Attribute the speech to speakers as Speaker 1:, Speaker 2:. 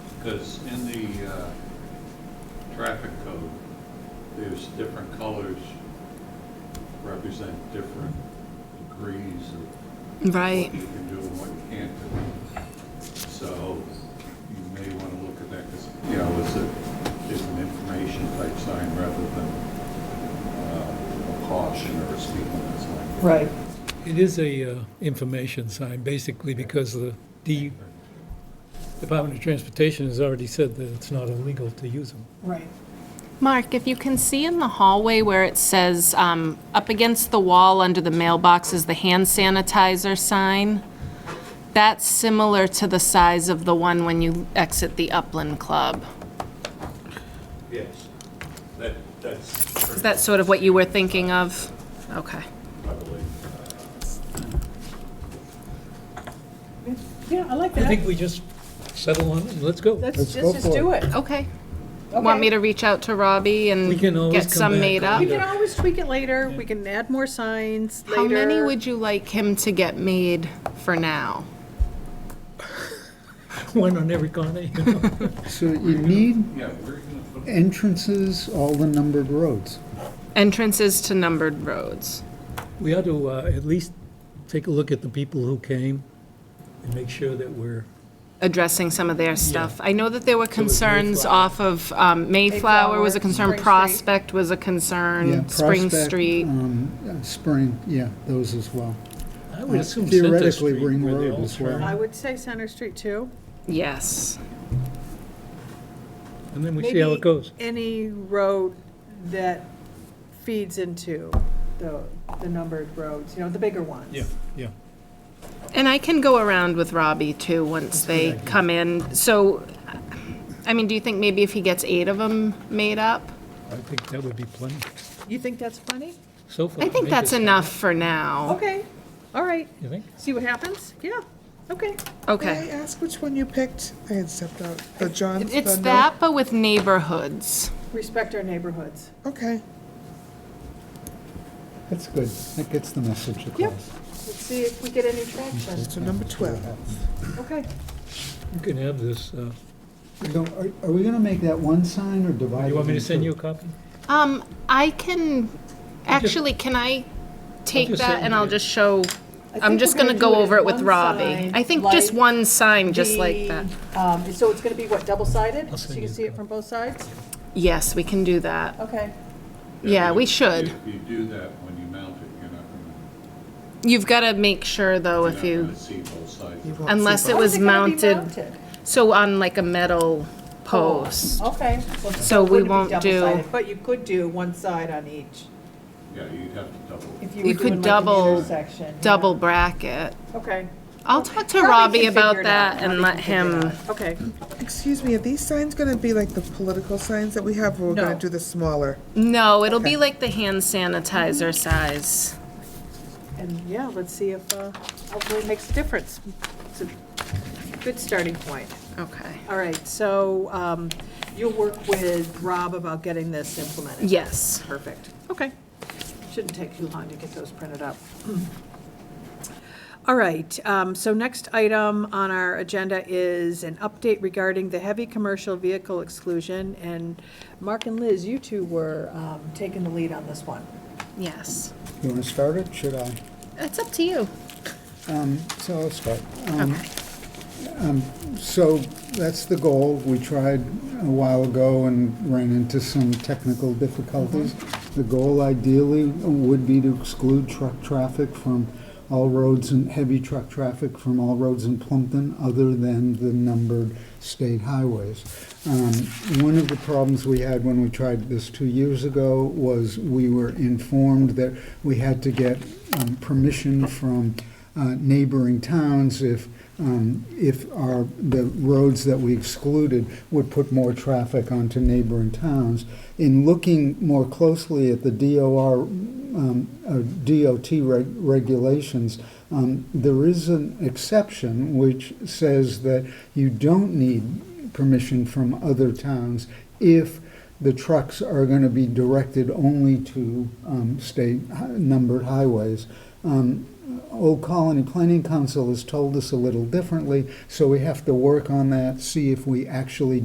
Speaker 1: Because in the uh, traffic code, there's different colors represent different degrees of
Speaker 2: Right.
Speaker 1: what you can do and what you can't do. So you may want to look at that because, you know, it's a, it's an information type sign rather than uh, a caution or a speed limit sign.
Speaker 3: Right.
Speaker 4: It is a uh, information sign, basically, because the D- Department of Transportation has already said that it's not illegal to use them.
Speaker 3: Right.
Speaker 2: Mark, if you can see in the hallway where it says, um, up against the wall under the mailbox is the hand sanitizer sign, that's similar to the size of the one when you exit the Upland Club.
Speaker 1: Yes, that, that's.
Speaker 2: Is that sort of what you were thinking of? Okay.
Speaker 1: Probably.
Speaker 3: Yeah, I like
Speaker 4: I
Speaker 3: that.
Speaker 4: think we just settle on it and let's go.
Speaker 3: Let's let's just do it.
Speaker 2: Okay. Want me to reach out to Robbie and
Speaker 4: We can always
Speaker 2: get
Speaker 4: come
Speaker 2: some
Speaker 4: back.
Speaker 2: made up?
Speaker 3: We can always tweak it later. We can add more signs later.
Speaker 2: How many would you like him to get made for now?
Speaker 4: One on every corner. you know.
Speaker 5: So you need
Speaker 1: Yeah, where are you going to put
Speaker 5: entrances, all the numbered roads.
Speaker 2: Entrances to numbered roads.
Speaker 4: We ought to uh, at least take a look at the people who came and make sure that we're,
Speaker 2: addressing some of their stuff. I know that there were
Speaker 4: was
Speaker 2: concerns
Speaker 4: Mayflower.
Speaker 2: off of, um, Mayflower was a
Speaker 3: Mayflower,
Speaker 2: concern,
Speaker 3: Spring Street.
Speaker 2: Prospect was a
Speaker 5: Yeah,
Speaker 2: concern, Spring
Speaker 5: Prospect,
Speaker 2: Street.
Speaker 5: um, uh, Spring, yeah, those as well.
Speaker 4: I would assume Center
Speaker 5: Theoretically,
Speaker 4: Street
Speaker 5: Ring
Speaker 4: where they
Speaker 5: Road
Speaker 4: all
Speaker 5: as well.
Speaker 3: I
Speaker 4: turn.
Speaker 3: would say Center Street too.
Speaker 2: Yes.
Speaker 4: And then we see how
Speaker 3: Maybe
Speaker 4: it goes.
Speaker 3: Any road that feeds into the, the numbered roads, you know, the bigger ones.
Speaker 4: Yeah, yeah.
Speaker 2: And I can go around with Robbie too, once they come in. So, I mean, do you think maybe if he gets eight of them made up?
Speaker 4: I think that would be plenty.
Speaker 3: You think that's plenty?
Speaker 4: So far.
Speaker 2: I think
Speaker 4: make
Speaker 2: that's
Speaker 4: this-
Speaker 2: enough for now.
Speaker 3: Okay, all right.
Speaker 4: You think?
Speaker 3: See what happens? Yeah, okay.
Speaker 6: May I
Speaker 2: Okay.
Speaker 6: ask which one you picked? I had stepped out. The John.
Speaker 2: It's
Speaker 6: the no-
Speaker 2: that, but with neighborhoods.
Speaker 3: Respect our neighborhoods.
Speaker 6: Okay.
Speaker 5: That's good. That gets the message across.
Speaker 3: Let's see if we get any traction.
Speaker 6: So number twelve.
Speaker 3: Okay.
Speaker 4: You can have this. uh,
Speaker 5: So are, are we gonna make that one sign or divide it?
Speaker 4: You want me to send you
Speaker 5: into-
Speaker 4: a copy?
Speaker 2: Um, I can, actually, can I take
Speaker 4: just
Speaker 2: that
Speaker 4: say-
Speaker 2: and I'll just show, I'm
Speaker 3: think
Speaker 2: just
Speaker 3: we're
Speaker 2: gonna
Speaker 3: gonna do
Speaker 2: go
Speaker 3: it in
Speaker 2: over it with
Speaker 3: one
Speaker 2: Robbie.
Speaker 3: sign,
Speaker 2: I think just
Speaker 3: like
Speaker 2: one sign, just like
Speaker 3: The,
Speaker 2: that.
Speaker 3: um, So it's going to be what, double-sided?
Speaker 4: I'll
Speaker 3: So
Speaker 4: send
Speaker 3: you
Speaker 4: you
Speaker 3: can
Speaker 4: the
Speaker 3: see it
Speaker 4: code.
Speaker 3: from both sides?
Speaker 2: Yes, we can do that.
Speaker 3: Okay.
Speaker 2: Yeah, we
Speaker 1: if-
Speaker 2: should.
Speaker 1: If you do that when you mount it, you're not going to.
Speaker 2: You've gotta make sure though,
Speaker 1: You're
Speaker 2: if
Speaker 1: not
Speaker 2: you,
Speaker 1: gonna see both sides.
Speaker 6: You won't see
Speaker 2: unless it
Speaker 3: How is
Speaker 2: was
Speaker 3: it gonna be
Speaker 2: mounted, so on like a metal post.
Speaker 3: Oh, Okay. well,
Speaker 2: So we
Speaker 3: it wouldn't be
Speaker 2: won't do-
Speaker 3: double-sided, But you could do one side on each,
Speaker 1: Yeah, you'd have to double.
Speaker 3: if you
Speaker 2: You
Speaker 3: were
Speaker 2: could
Speaker 3: doing like
Speaker 2: double-
Speaker 3: an intersection. yeah.
Speaker 2: Double bracket.
Speaker 3: Okay.
Speaker 2: I'll talk to
Speaker 3: Robbie
Speaker 2: Robbie
Speaker 3: can figure
Speaker 2: about
Speaker 3: it out.
Speaker 2: that and
Speaker 3: Robbie
Speaker 2: let
Speaker 3: can figure
Speaker 2: him,
Speaker 3: it out. Okay,
Speaker 6: both. Excuse me, are these signs gonna be like the political signs that we have, or we're
Speaker 3: No.
Speaker 6: gonna do the smaller?
Speaker 2: no, it'll be
Speaker 6: Okay.
Speaker 2: like the hand sanitizer size.
Speaker 3: and yeah, let's see if, uh, hopefully it makes a difference. It's a good starting point.
Speaker 2: Okay.
Speaker 3: All right, so um, you'll work with Rob about getting this implemented?
Speaker 2: Yes.
Speaker 3: Perfect. Okay. Shouldn't take too long to get those printed up. All right, um, so next item on our agenda is an update regarding the heavy commercial vehicle exclusion. And Mark and Liz, you two were um, taking the lead on this one.
Speaker 2: Yes.
Speaker 5: You wanna start it? Should I?
Speaker 2: It's up to you.
Speaker 5: So I'll start. Um, um, So that's the goal. We tried a while ago and ran into some technical difficulties. The goal ideally would be to exclude truck traffic from all roads and heavy truck traffic from all roads in Plumpton other than the numbered state highways. Um, One of the problems we had when we tried this two years ago was we were informed that we had to get um, permission from uh, neighboring towns if, um, if our, the roads that we excluded would put more traffic onto neighboring towns. In looking more closely at the DOR, um, uh, DOT reg- regulations, um, there is an exception which says that you don't need permission from other towns if the trucks are going to be directed only to um, state hi- numbered highways. Um, Old Colony Planning Council has told us a little differently, so we have to work on that, see if we actually